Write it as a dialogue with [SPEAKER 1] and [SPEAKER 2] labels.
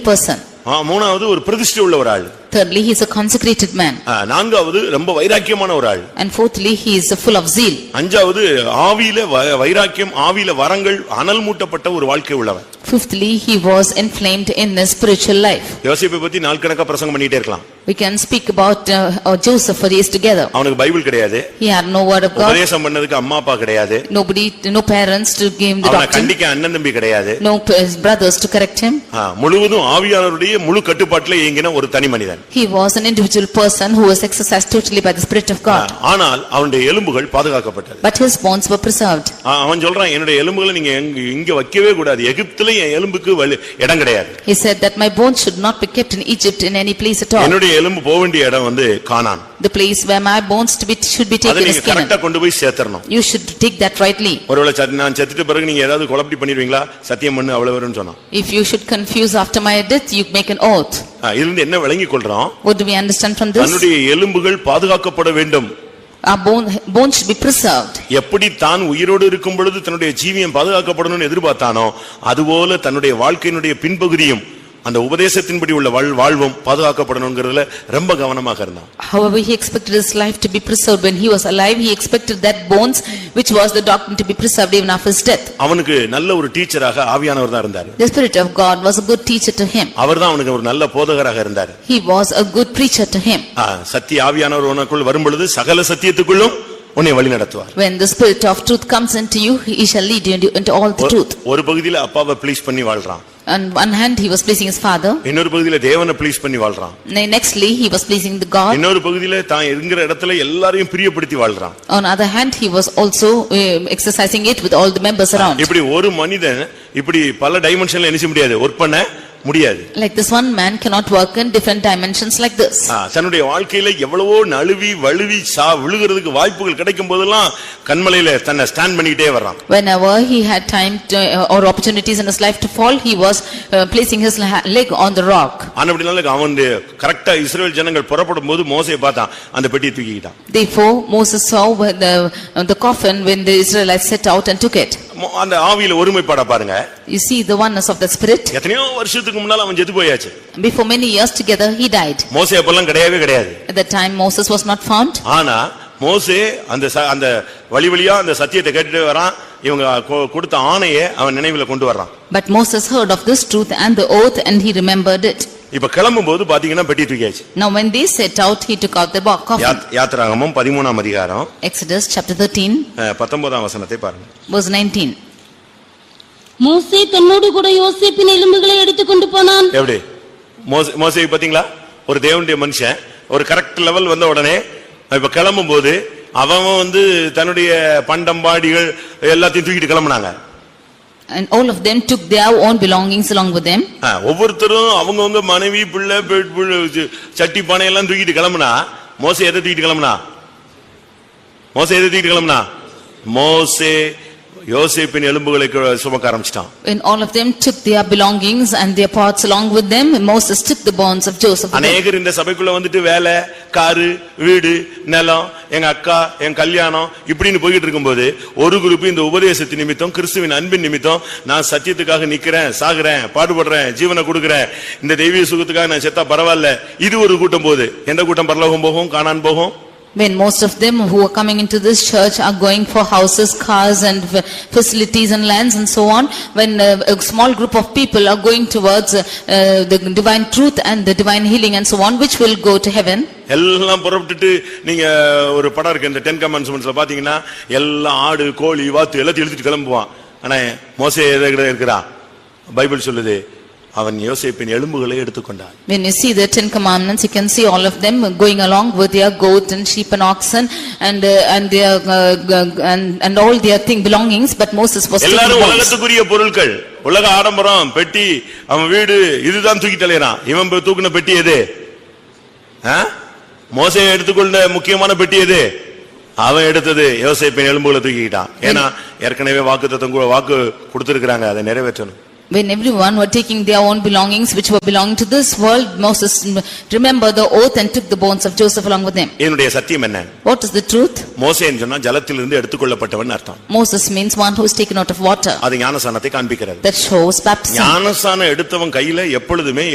[SPEAKER 1] person.
[SPEAKER 2] ஆ, மூணாவது ஒரு பிரதிஷ்டை உள்ள ஒரு ஆள்
[SPEAKER 1] Thirdly, he is a consecrated man.
[SPEAKER 2] ஆ, நான்காவது ரொம்ப வைராக்கியமான ஒரு ஆள்
[SPEAKER 1] And fourthly, he is full of zeal.
[SPEAKER 2] அஞ்சாவது ஆவியில வ- வைராக்கியம் ஆவியில வரங்கள் அனல் மூட்டப்பட்ட ஒரு வாழ்க்கை உள்ளவன்
[SPEAKER 1] Fifthly, he was inflamed in his spiritual life.
[SPEAKER 2] யோசிப்பை பத்தி நாள் கணக்கா பிரசங்கம் பண்ணிட்டே இருக்கலாம்
[SPEAKER 1] We can speak about uh, uh, Joseph for days together.
[SPEAKER 2] அவனுக்கு பைபிள் கிடையாது
[SPEAKER 1] He had no word of God,
[SPEAKER 2] உபதேசம் பண்ணதுக்கு அம்மா அப்பா கிடையாது
[SPEAKER 1] nobody, no parents to give him the
[SPEAKER 2] அவனை
[SPEAKER 1] doctrine,
[SPEAKER 2] கண்டிக்க அண்ணன் தம்பி கிடையாது
[SPEAKER 1] no p- brothers to correct him.
[SPEAKER 2] ஆ, முழுவதும் ஆவியாளருடைய முழு கட்டுப்பாட்டுல இயங்கின ஒரு தனி மனிதன்
[SPEAKER 1] He was an individual person who was exercised totally by the Spirit of
[SPEAKER 2] ah,
[SPEAKER 1] God.
[SPEAKER 2] ஆனால் அவனுடைய எலும்புகள் பாதுகாக்கப்பட்டது
[SPEAKER 1] But his bones were preserved.
[SPEAKER 2] ஆ, அவன் சொல்றான் என்னுடைய எலும்புகளை நீங்க எங்க- இங்க வைக்கவே கூடாது எகிப்துல என் எலும்புக்கு வலி- இடம் கிடையாது
[SPEAKER 1] He said that my bones should not be kept in Egypt in any place at all.
[SPEAKER 2] என்னுடைய எலும்பு போக வேண்டிய இடம் வந்து காணான்
[SPEAKER 1] The place where my bones to be, should be
[SPEAKER 2] அதை
[SPEAKER 1] taken
[SPEAKER 2] நீங்க
[SPEAKER 1] is Canaan.
[SPEAKER 2] கரெக்டா கொண்டு போய் சேர்த்தறணும்
[SPEAKER 1] You should take that rightly.
[SPEAKER 2] ஒருவேளை சத்தி- நான் செத்துட்ட பிறகு நீங்க ஏதாவது குழப்படி பண்ணிடுவீங்களா சத்தியம் பண்ணு அவ்வளவு வரும்னு சொன்னான்
[SPEAKER 1] If you should confuse after my death, you make an oath.
[SPEAKER 2] ஆ, இதிலிருந்து என்ன விளங்கிக் கொள்றோம்
[SPEAKER 1] What do we understand from this?
[SPEAKER 2] தன்னுடைய எலும்புகள் பாதுகாக்கப்பட வேண்டும்
[SPEAKER 1] Our bone, bones should be preserved.
[SPEAKER 2] எப்படி தான் உயிரோடு இருக்கும் பொழுது தன்னுடைய ஜீவியம் பாதுகாக்கப்படணும்னு எதிர்பார்த்தானோ அதுபோல தன்னுடைய வாழ்க்கையினுடைய பின்பகுதியும் அந்த உபதேசத்தின்படி உள்ள வாழ்- வாழ்வும் பாதுகாக்கப்படணுங்கிறதுல ரொம்ப கவனமாக இருந்தான்
[SPEAKER 1] However, he expected his life to be preserved. When he was alive, he expected that bones, which was the doctrine, to be preserved even after his death.
[SPEAKER 2] அவனுக்கு நல்ல ஒரு டீச்சராக ஆவியானவர் தான் இருந்தார்
[SPEAKER 1] The Spirit of God was a good teacher to him.
[SPEAKER 2] அவர் தான் அவனுக்கு ஒரு நல்ல போதகராக இருந்தார்
[SPEAKER 1] He was a good preacher to him.
[SPEAKER 2] ஆ, சத்திய ஆவியானவர் உனக்குள் வரும்பொழுது சகல சத்தியத்துக்குள்ளும் உன்னை வழி நடத்துவார்
[SPEAKER 1] When the Spirit of truth comes into you, he shall lead you into- into all the truth.
[SPEAKER 2] ஒரு பகுதியில அப்பாவை ப்ளீஸ் பண்ணி வாழ்றான்
[SPEAKER 1] On one hand, he was pleasing his father.
[SPEAKER 2] இன்னொரு பகுதியில தேவனை ப்ளீஸ் பண்ணி வாழ்றான்
[SPEAKER 1] Ne- Nextly, he was pleasing the God.
[SPEAKER 2] இன்னொரு பகுதியில தான் இருக்கிற இடத்துல எல்லாரையும் பிரியப்படுத்தி வாழ்றான்
[SPEAKER 1] On other hand, he was also eh, exercising it with all the members around.
[SPEAKER 2] இப்படி ஒரு மனிதன் இப்படி பல டைமென்ஷன்ல நினைச்ச முடியாது ஒர்க் பண்ண முடியாது
[SPEAKER 1] Like this one man cannot work in different dimensions like this.
[SPEAKER 2] ஆ, தன்னுடைய வாழ்க்கையில எவ்வளவோ நழுவி வழுவி சா விழுகிறதுக்கு வாய்ப்புகள் கிடைக்கும் போதெல்லாம் கண்மலையில தன்னை ஸ்டாண்ட் பண்ணிக்கிட்டே வர்றான்
[SPEAKER 1] Whenever he had time to- uh, or opportunities in his life to fall, he was uh, placing his la- leg on the rock.
[SPEAKER 2] ஆனா அப்படினால அவன் கரெக்டா இஸ்ரேல் ஜனங்கள் புறப்படும் போது மோசையை பார்த்தான் அந்த பெட்டியை தூக்கிக்கிட்டான்
[SPEAKER 1] Therefore Moses saw when the uh, the coffin when the Israelites set out and took it.
[SPEAKER 2] மோ- அந்த ஆவியில ஒருமைப்பாட பாருங்க
[SPEAKER 1] You see the oneness of the spirit.
[SPEAKER 2] எத்தனையோ வருஷத்துக்கு முன்னால அவன் செத்து போயாச்சு
[SPEAKER 1] Before many years together, he died.
[SPEAKER 2] மோசே அப்பெல்லாம் கிடையவே கிடையாது
[SPEAKER 1] At that time Moses was not found.
[SPEAKER 2] ஆனா மோசே அந்த ச- அந்த வழி வழியா அந்த சத்தியத்தை கேட்டுட்டு வரான் இவங்க கொ- கொடுத்த ஆணையை அவன் நினைவுல கொண்டு வர்றான்
[SPEAKER 1] But Moses heard of this truth and the oath and he remembered it.
[SPEAKER 2] இப்ப கிளம்பும் போது பாத்தீங்கன்னா பெட்டி தூக்கியாச்சு
[SPEAKER 1] Now when they set out, he took out the bo- coffin.
[SPEAKER 2] யாத்- யாத்திராகமம் பதிமூணாம் அதிகாரம்
[SPEAKER 1] Exodus chapter 13
[SPEAKER 2] அஹ், பத்தொன்பதாம் வசனத்தை பாருங்க
[SPEAKER 1] verse 19.
[SPEAKER 3] மோசே தன்னோடு கூட யோசேப்பின் எலும்புகளை எடுத்துக்கொண்டு போனான்
[SPEAKER 2] எப்படி மோசே மோசே பாத்தீங்களா ஒரு தேவனுடைய மனுஷன் ஒரு கரெக்ட் லெவல் வந்த உடனே இப்ப கிளம்பும் போது அவன் வந்து தன்னுடைய பண்டம்பாடிகள் எல்லாத்தையும் தூக்கிட்டு கிளம்புனாங்க
[SPEAKER 1] And all of them took their own belongings along with them.
[SPEAKER 2] ஆ, ஒவ்வொருத்தரும் அவங்கவங்க மனைவி பிள்ளை பெ- பிள்ளை, ச- சட்டி பானை எல்லாம் தூக்கிட்டு கிளம்புனா மோசே எதை தூக்கிட்டு கிளம்புனா மோசே எதை தூக்கிட்டு கிளம்புனா மோசே யோசேப்பின் எலும்புகளை கு- சுமக்க ஆரம்பிச்சிட்டான்
[SPEAKER 1] When all of them took their belongings and their parts along with them, Moses took the bonds of Joseph. with him.
[SPEAKER 2] அநேகர் இந்த சபைக்குள்ள வந்துட்டு வேலை காரு வீடு நிலம் எங்க அக்கா என் கல்யாணம் இப்படின்னு போய்கிட்டு இருக்கும்போது ஒரு குரூப் இந்த உபதேசத்தின் நிமித்தம் கிறிஸ்துவின் அன்பின் நிமித்தம் நான் சத்தியத்துக்காக நிக்கிறேன் சாகுறேன் பாடுபடுறேன் ஜீவனை கொடுக்கிறேன் இந்த தெய்வீக சுகத்துக்காக நான் செத்தா பரவாயில்ல இது ஒரு கூட்டம் போகுது எந்த கூட்டம் பரலோகம் போகும் காணான் போகும்
[SPEAKER 1] When most of them who are coming into this church are going for houses, cars and f- facilities and lands and so on, when uh, a small group of people are going towards uh, uh, the divine truth and the divine healing and so on, which will go to heaven.
[SPEAKER 2] எல்லாம் புறப்பட்டுட்டு நீங்க ஒரு படம் இருக்கு இந்த ten கமெண்ட்ஸ்மெண்ட்ஸ்ல பாத்தீங்கன்னா எல்லாம் ஆடு கோழி வாத்து எல்லாத்தையும் எழுதிட்டு கிளம்புவான் ஆனா மோசே எதை இருக்கிறான் பைபிள் சொல்லுது அவன் யோசேப்பின் எலும்புகளை எடுத்துக்கொண்டான்
[SPEAKER 1] When you see the Ten Commandments, you can see all of them going along with their goat and sheep and oxen and, uh, and their, uh, g- and, and all their thing belongings, but Moses was taking
[SPEAKER 2] எல்லாரும்
[SPEAKER 1] bones.
[SPEAKER 2] உலகத்துக்குரிய பொருட்கள் உலக ஆடம்பரம் பெட்டி அவன் வீடு இதுதான் தூக்கி தலையறான் இவன் போய் தூக்குன பெட்டி எது ஆ? மோசே எடுத்துக்கொண்ட முக்கியமான பெட்டி எது அவன் எடுத்தது யோசேப்பின் எலும்புகளை தூக்கிக்கிட்டான் ஏன்னா ஏற்கனவே வாக்குத்தத்தம் கூட வாக்கு கொடுத்திருக்கிறாங்க அதை நிறைவேற்றணும்
[SPEAKER 1] When everyone were taking their own belongings which were belonging to this world, Moses mm, remembered the oath and took the bones of Joseph along with him.
[SPEAKER 2] என்னுடைய சத்தியம் என்ன
[SPEAKER 1] What is the truth?
[SPEAKER 2] மோசேன்னு சொன்னா ஜலத்திலிருந்து எடுத்துக்கொள்ளப்பட்டவன் அர்த்தம்
[SPEAKER 1] Moses means one who is taken out of water.
[SPEAKER 2] அது ஞானசானத்தை காண்பிக்கிறது
[SPEAKER 1] That shows baptism.
[SPEAKER 2] ஞானசானம் எடுத்தவன் கையில எப்பொழுதுமே